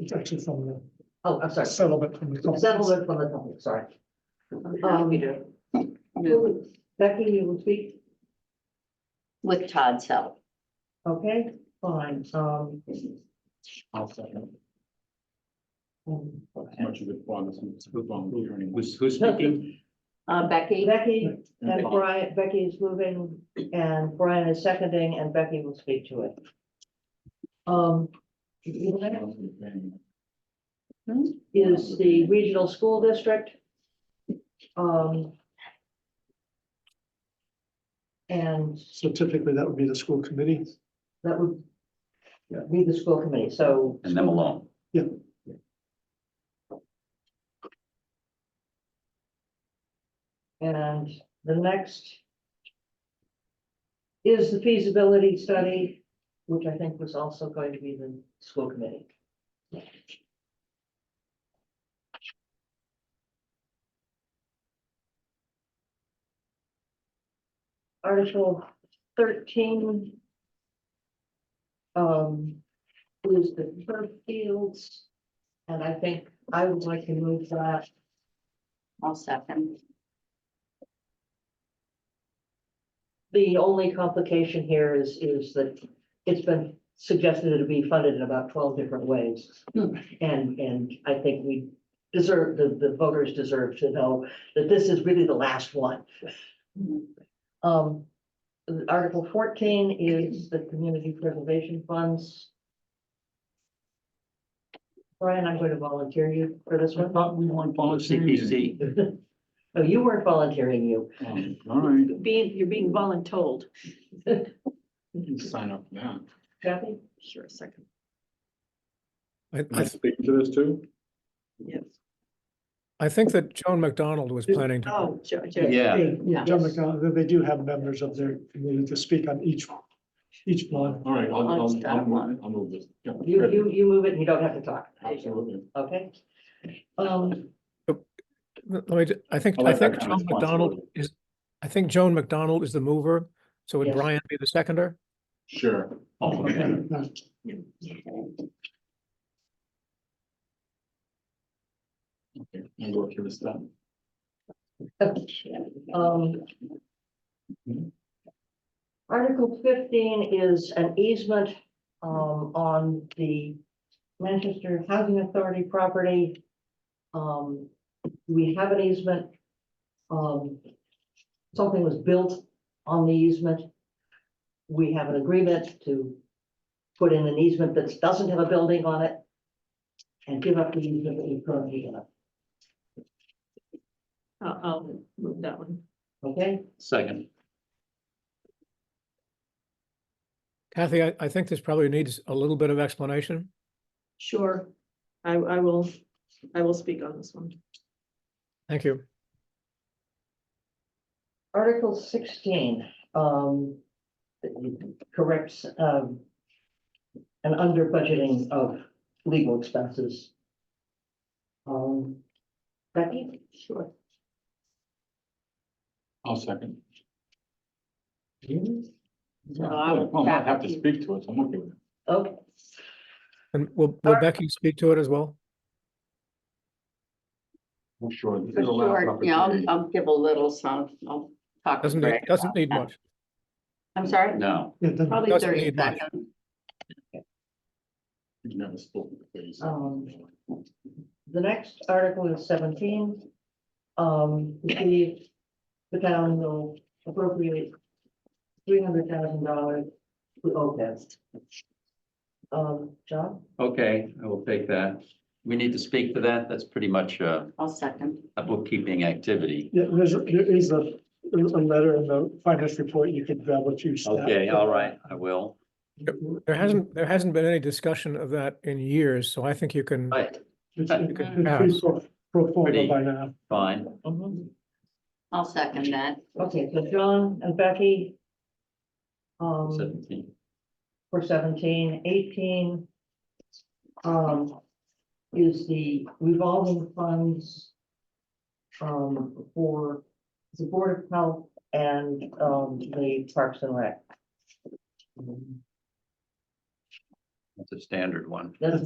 It's actually from Oh, I'm the sorry, settlement from the. settlement from the company, sorry. Um, Who- Becky, you will speak, with Todd's help. okay, fine, um. I'll second. um, Much of it bothers me, it's good volunteering. Who's, who's speaking? Uh, Becky, Becky, and Brian, Becky is moving, and Brian is seconding, and Becky will speak to it. Um. Is the regional school district. Um. And So typically that would be the school committee. that would. Be the school committee, so And them alone. And the next is the feasibility study, which I think was also going to be the school committee. Article thirteen um, is the turf fields, and I think I would like to move that I'll second. The only complication here is, is that it's been suggested to be funded in about twelve different ways. Hmm. And, and I think we deserve, the, the voters deserve to know that this is really the last one. Um, Article fourteen is the community preservation funds. Brian, I'm going to volunteer you for this one. thought we weren't CPC. No, you weren't volunteering you. Um, All right, Being, you're being voluntold. you can sign up for that. Kathy? Sure, second. I, Am I, I speaking to this too? Yes. I think that Joan McDonald was planning to, Oh, Joe, Joe. Yeah, Yeah, John McDonald, they do have members of their committee to speak on each, each one. All right, I'll I'll, I'll, I'll start move, one. it, I'll move this. Yeah, You, great. you, you move it and you don't have to talk, Absolutely. okay? Um, let me, ju- I think, I I like that think kind of Joan McDonald responsibility. is, I think Joan McDonald is the mover. So would Yes. Brian be the seconder? Sure. Oh, okay. Now, Okay, I'll work through this stuff. Um. Article fifteen is an easement, um, on the Manchester Housing Authority property. Um, we have an easement. Um, something was built on the easement. We have an agreement to put in an easement that doesn't have a building on it. And give up the easement that we currently have, I'll, I'll move that one. okay? Second. Kathy, I, I think this probably needs a little bit of explanation. Sure. I, I will, I will speak on this one. Thank you. Article sixteen, um, corrects, um, an under budgeting of legal expenses. Um, Becky? Sure. I'll second. So I I'll- will not have to speak to it, so I'm okay with it. Okay, And will, will Alright. Becky speak to it as well? Well, sure. this is For the last sure, yeah, I'll, opportunity. I'll give a little some, I'll talk. to Doesn't need, Greg doesn't about need that. much. I'm sorry, No, yeah, then- probably Doesn't thirty need much. seconds. You've never spoken to me, so- Um, the next article is seventeen. Um, the, the town will appropriate three hundred thousand dollars to OPEB. Um, John? okay, I will take that. We need to speak to that. That's pretty much uh, I'll second. a bookkeeping activity. Yeah, there's, a- there is a, there's a letter in the finance report you could grab what you. staff- Okay, all right, I will. There hasn't, there hasn't been any discussion of that in years, so I think you can, Right, It's Okay. it's pretty pro- pro forma by now. fine. I'll second that. Okay, so John and Becky. Um, Seventeen. for 17, 18, Um, is the revolving funds. Um, for the Board of Health and, um, the Parks and Rec. That's a standard one. That's